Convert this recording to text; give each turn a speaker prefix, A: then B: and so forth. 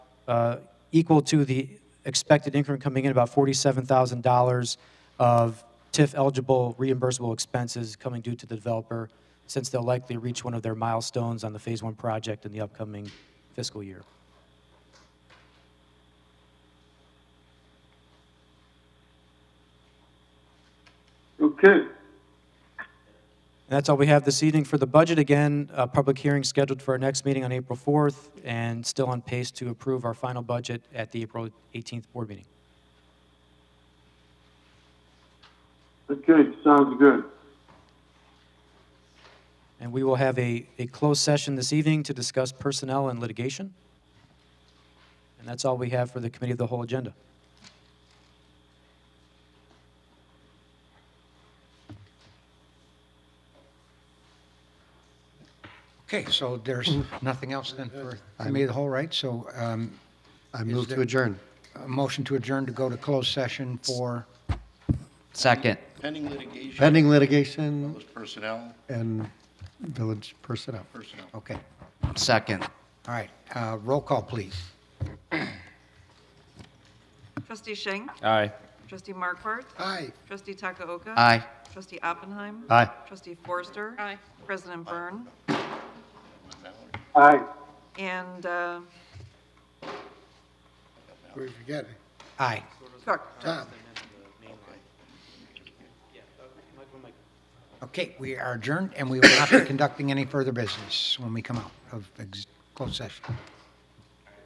A: uh, equal to the expected increment coming in, about $47,000 of TIF-eligible reimbursable expenses coming due to the developer, since they'll likely reach one of their milestones on the Phase 1 project in the upcoming fiscal year.
B: Okay,
A: And that's all we have this evening for the budget. Again, a public hearing scheduled for our next meeting on April 4th, and still on pace to approve our final budget at the April 18th board meeting.
B: okay, sounds good.
A: And we will have a, a closed session this evening to discuss personnel and litigation. And that's all we have for the committee of the whole agenda.
C: Okay, so there's nothing else then for committee of the whole, right? So um,
D: I move
C: there-
D: to adjourn.
C: a motion to adjourn to go to closed session for,
E: Second.
F: Pending litigation.
D: Pending litigation
F: Those personnel,
D: and village personnel.
F: personnel.
C: okay,
E: Second.
C: all right. uh, Roll call, please.
G: Trustee Schenk.
E: Aye.
G: Trustee Markwart.
C: Aye.
G: Trustee Takaoka.
E: Aye.
G: Trustee Oppenheim.
D: Aye.
G: Trustee Forster. Aye. President Byrne.
B: Aye.
G: And uh,
H: We forget it.
C: Aye.
G: Cook.
C: Okay, we are adjourned, and we will not be conducting any further business when we come out of ex- closed session.